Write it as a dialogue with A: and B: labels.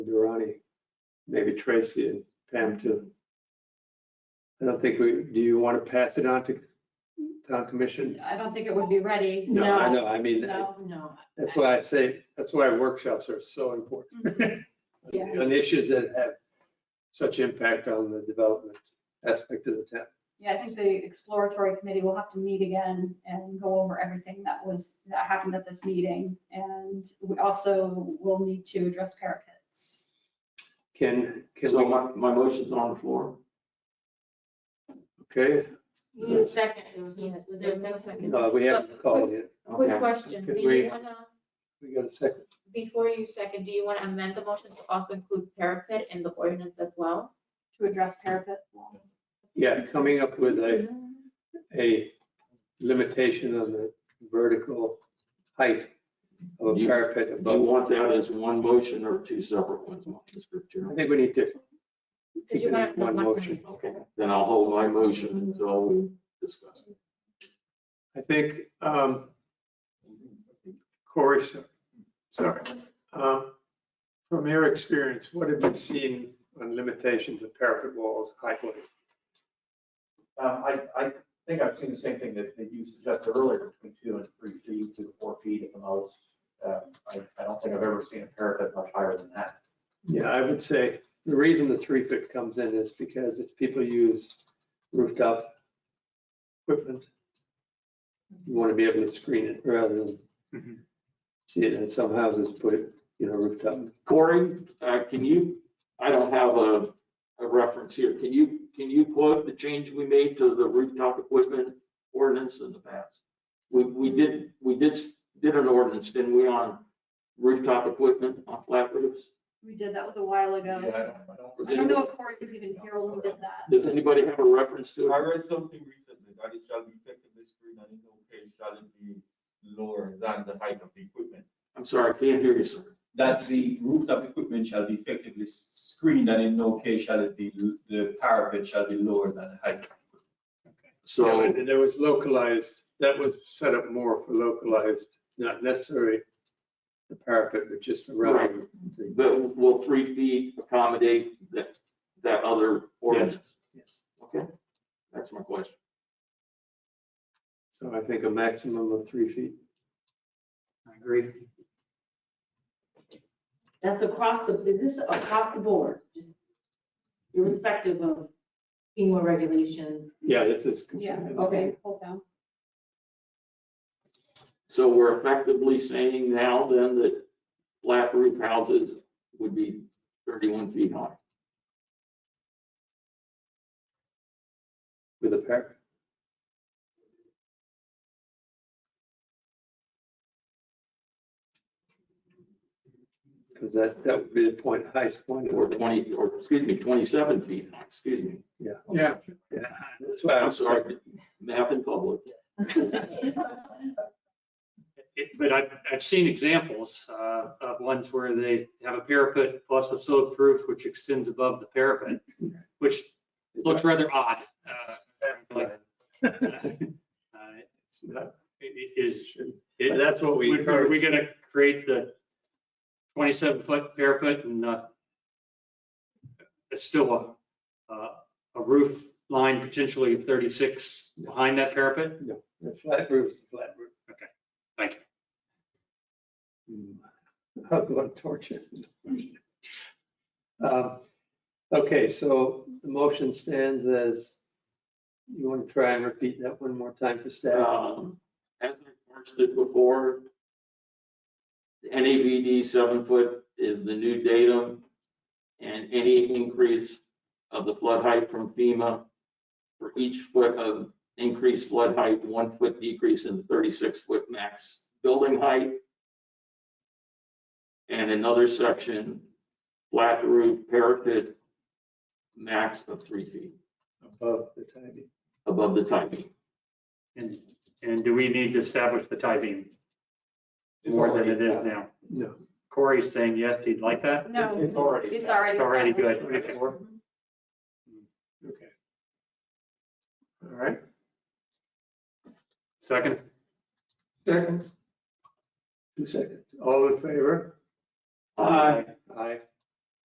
A: Durani, maybe Tracy and Pam too. I don't think we, do you want to pass it on to town commission?
B: I don't think it would be ready.
A: I know, I mean,
B: No,
C: No,
A: that's why I say, that's why workshops are so
B: Mm-hmm.
A: important.
B: Yeah.
A: On issues that have such impact on the development aspect of the town.
B: yeah, I think the exploratory committee will have to meet again and go over everything that was, that happened at this meeting. And we also will need to address parapets.
A: Can, can
D: So
A: we,
D: my, my motion's on the floor.
A: okay,
C: you need a second, there was no, there was no second.
A: no, we haven't called yet.
C: Quick
D: Okay.
C: question, do
A: Could we-
C: you wanna,
A: We got a second.
C: before you second, do you wanna amend the motion to also include parapet in the ordinance as well?
B: to address parapet walls.
A: Yeah, coming up with a, a limitation on the vertical height of a
D: You-
A: parapet
D: Do you
A: above.
D: want that as one motion or two separate ones, Mr.
A: I
D: Chairman?
A: think we need to
C: Because
A: keep
C: you
A: it
C: want
A: in
C: to
A: one motion.
D: Okay, then I'll hold my motion until we discuss. it.
A: I think um, Corey, so- sorry. um, From your experience, what have you seen on limitations of parapet walls, height limits?
E: Um, I, I think I've seen the same thing that, that you suggested earlier, between two and three feet, two to four feet at the most. Um, I, I don't think I've ever seen a parapet much higher than that.
A: Yeah, I would say the reason the three foot comes in is because if people use rooftop equipment, you want to be able to screen it rather than see it. And some houses put, you know, rooftop.
D: Corey, uh, can you, I don't have a, a reference here. Can you, can you quote the change we made to the rooftop equipment ordinance in the past? We, we did, we did, s- did an ordinance, didn't we, on rooftop equipment on flat roofs?
B: We did, that was a while
E: Yeah, I
B: ago.
E: don't, I don't.
D: Was
B: I don't know
D: anybody-
B: if Corey was even here when we did that.
D: Does anybody have a reference to
F: I
D: it?
F: read something recently that it shall be effectively screened and in no case shall it be lower than the height of the equipment.
D: I'm sorry, I can't hear you, sir.
F: That the rooftop equipment shall be effectively s- screened and in no case shall it be, l- the parapet shall be lower than the height. of the equipment.
A: Yeah,
D: So,
A: and there was localized, that was set up more for localized, not necessarily the parapet, but just around. the-
D: but will three feet accommodate that, that other ordinance?
A: Yes.
D: Okay, that's my question.
A: So I think a maximum of three feet. I agree.
G: That's across the, is this across the board? Just Irrespective of FEMA regulations?
A: Yeah, this is.
B: Yeah.
G: Okay.
B: Hold down.
D: So we're effectively saying now then that flat roof houses would be thirty-one feet high
A: With a parapet. Because that, that would be the point, highest point. of
D: or
A: it.
D: twenty, or excuse me, twenty-seven feet high, excuse me.
A: Yeah. Yeah. That's why
D: I'm sorry, math in public.
H: it- but I've, I've seen examples uh, of ones where they have a parapet plus a sloped roof which extends above the parapet, which looks rather odd. uh, apparently. Uh,
A: It's not-
H: it- it Is,
A: But
H: it-
A: That's what we.
H: would- are we going to create the 27-foot parapet and uh, it's still a, uh, a roof line potentially 36 behind that parapet?
A: The flat roof's a flat roof.
H: Okay. Thank
A: you. I'm going to torture. you. Um, Okay, so the motion stands as, you want to try and repeat that one more time for staff?
D: Um, As I first did before, the NAVD seven foot is the new datum. And any increase of the flood height from FEMA for each foot of increased flood height, one foot decrease in the thirty-six foot max building height. And another section, flat roof parapet, max of three feet
H: Uh,
A: Above the timing.
D: above the tie beam.
H: And, and do we need to establish the tie beam
E: It's
H: more than it
E: already-
H: is now?
A: No.
H: Corey's saying yes, he'd like that.
B: No,
E: It's already.
B: it's already. Mm-hmm.
H: It's already good.
B: established.
H: Okay.
A: Hmm, Okay. All right.
H: Second,
A: Second. Two seconds. All in favor?
D: Uh,
A: Aye.